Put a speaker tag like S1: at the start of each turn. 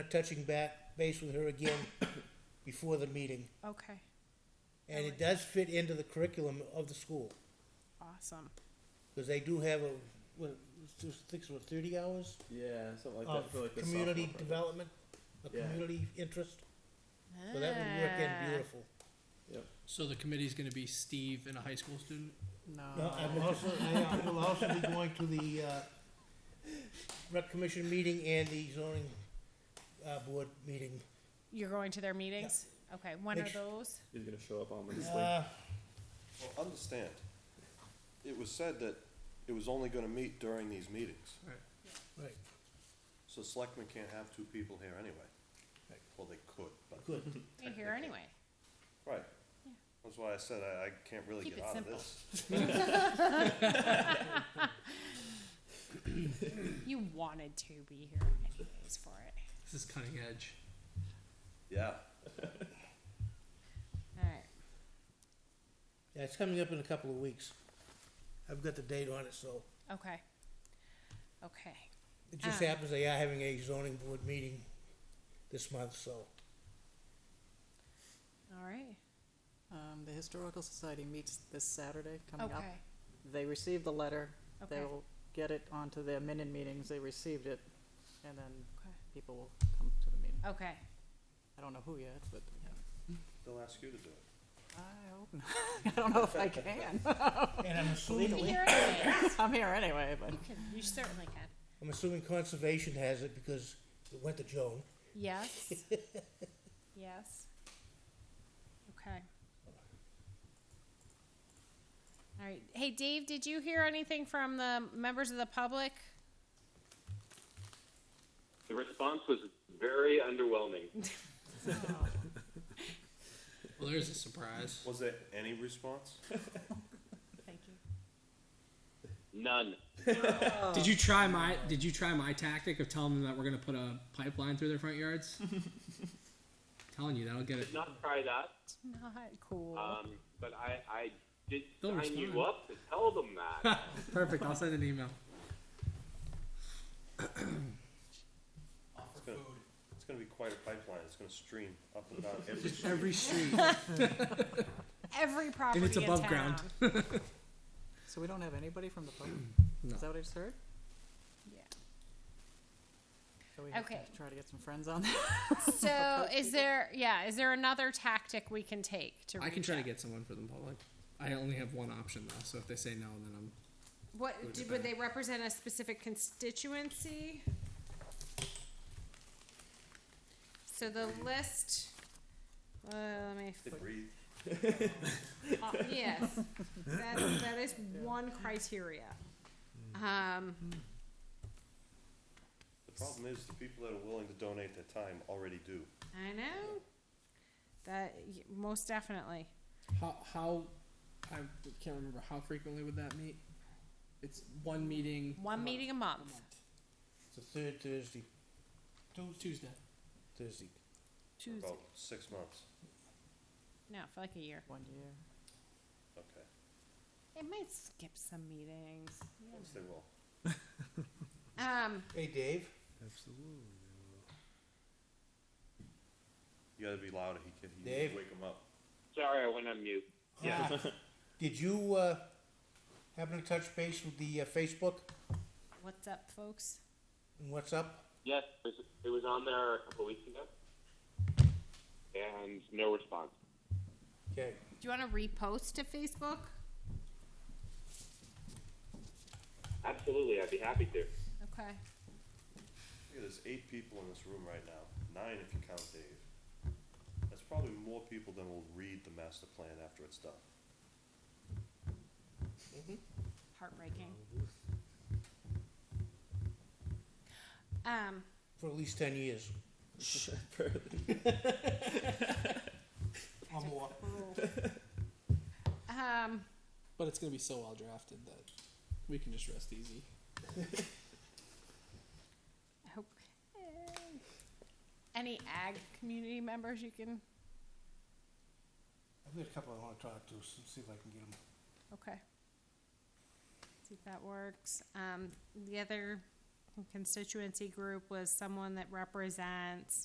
S1: touching back base with her again before the meeting.
S2: Okay,
S1: And it does fit into the curriculum of the school,
S2: awesome.
S1: because they do have a, what, it's six or thirty hours
S3: Yeah, something like that. for
S1: of
S3: like the
S1: community
S3: sophomore project.
S1: development, a
S3: Yeah.
S1: community interest, so that would work
S2: Ah.
S4: Ah.
S1: in beautiful.
S5: So the committee's gonna be Steve and a high school student?
S1: Now, I'm also, I uh, will also be going to the, uh, rec commission meeting and the zoning, uh, board meeting.
S2: You're going to their meetings? Okay, when
S1: Make
S2: are
S1: su-
S2: those?
S3: He's gonna show up on Wednesday.
S1: Uh,
S6: Well, understand, it was said that it was only gonna meet during these meetings,
S1: right,
S6: so selectmen can't have two people here anyway.
S1: Right.
S6: Well, they could, but,
S1: good.
S2: You're here anyway.
S6: right.
S2: Yeah.
S6: That's why I said I, I can't really
S2: Keep
S6: get
S2: it
S6: out of
S2: simple.
S6: this.
S2: You wanted to be here anyways for it.
S5: This is cutting edge.
S6: Yeah,
S2: Alright,
S1: Yeah, it's coming up in a couple of weeks. I've got the date on it, so.
S2: okay. Okay,
S1: It just
S2: Ah.
S1: happens they are having a zoning board meeting this month, so.
S2: alright,
S4: Um, the Historical Society meets this Saturday coming up.
S2: okay,
S4: They received the letter.
S2: okay, okay.
S4: They'll get it onto their minute meetings. They received it. And then people will come to the meeting.
S2: Okay,
S4: I don't know who yet, but
S6: they'll ask you to do it.
S4: I hope not. I don't know if I can.
S1: And I'm
S2: you can
S1: assuming,
S2: hear anyway.
S4: I'm here anyway, but
S2: You can, you certainly can.
S1: I'm assuming conservation has it because it went to Joan.
S2: Yes. Yes. Okay. All right. Hey, Dave, did you hear anything from the members of the public?
S7: The response was very underwhelming.
S5: Oh, Well, there's a surprise.
S6: Was there any response?
S2: Thank you.
S7: None.
S5: Did you try my, did you try my tactic of telling them that we're gonna put a pipeline through their front yards? Telling you, that'll get it.
S7: Did not try that,
S2: Not cool.
S5: Uh,
S7: um, but I, I did
S5: They'll
S7: sign you
S5: respond.
S7: up to tell them that.
S5: Perfect, I'll send an email.
S6: It's gonna, it's gonna be quite a pipeline, it's gonna stream up and down every street.
S5: Every street.
S2: Every property
S5: it's above
S2: in
S5: ground.
S2: town.
S4: so we don't have anybody from the public?
S5: No.
S4: Is that what I just heard?
S2: Yeah.
S4: So we have to
S2: Okay.
S4: try to get some friends on that.
S2: So, is there? Yeah, is there another tactic we can take to?
S5: I can
S2: reach
S5: try to
S2: out?
S5: get someone for the public. I only have one option though, so if they say no, then I'm,
S2: What did, would they represent a specific constituency? So the list. Uh, let me.
S6: They breathe,
S2: Uh, yes, that, that is one criteria. Um,
S6: the problem is, the people that are willing to donate their time already do.
S2: I know. That, y- most definitely.
S5: how, how, I can't remember, how frequently would that meet? It's one meeting.
S2: One meeting a month.
S1: It's the third Thursday,
S5: Tuesday.
S1: Thursday.
S6: for
S2: Tuesday.
S6: About six months,
S2: No, for like a year.
S4: One year.
S6: okay,
S2: It might skip some meetings. you
S6: yes, they will.
S2: know. Um,
S1: Hey, Dave,
S6: You gotta be louder, he can, he
S1: Dave.
S6: wake him up.
S7: Sorry, I went on mute.
S6: Yeah.
S1: Uh, did you, uh, happen to touch base with the uh, Facebook
S2: what's up, folks?
S1: and what's up?
S7: Yes, it was, it was on there a couple weeks ago, and no response.
S1: Okay,
S2: Do you wanna repost to Facebook?
S7: Absolutely, I'd be happy to.
S2: Okay.
S6: Look at this, eight people in this room right now, nine if you count Dave. That's probably more people than will read the master plan after it's done.
S2: Heartbreaking. Um,
S1: for at least ten years or more.
S2: um,
S5: But it's gonna be so well drafted that we can just rest easy.
S2: I hope, eh, any ag community members you can,
S1: I've got a couple I wanna talk to, so see if I can get them.
S2: okay. See if that works. Um, the other constituency group was someone that represents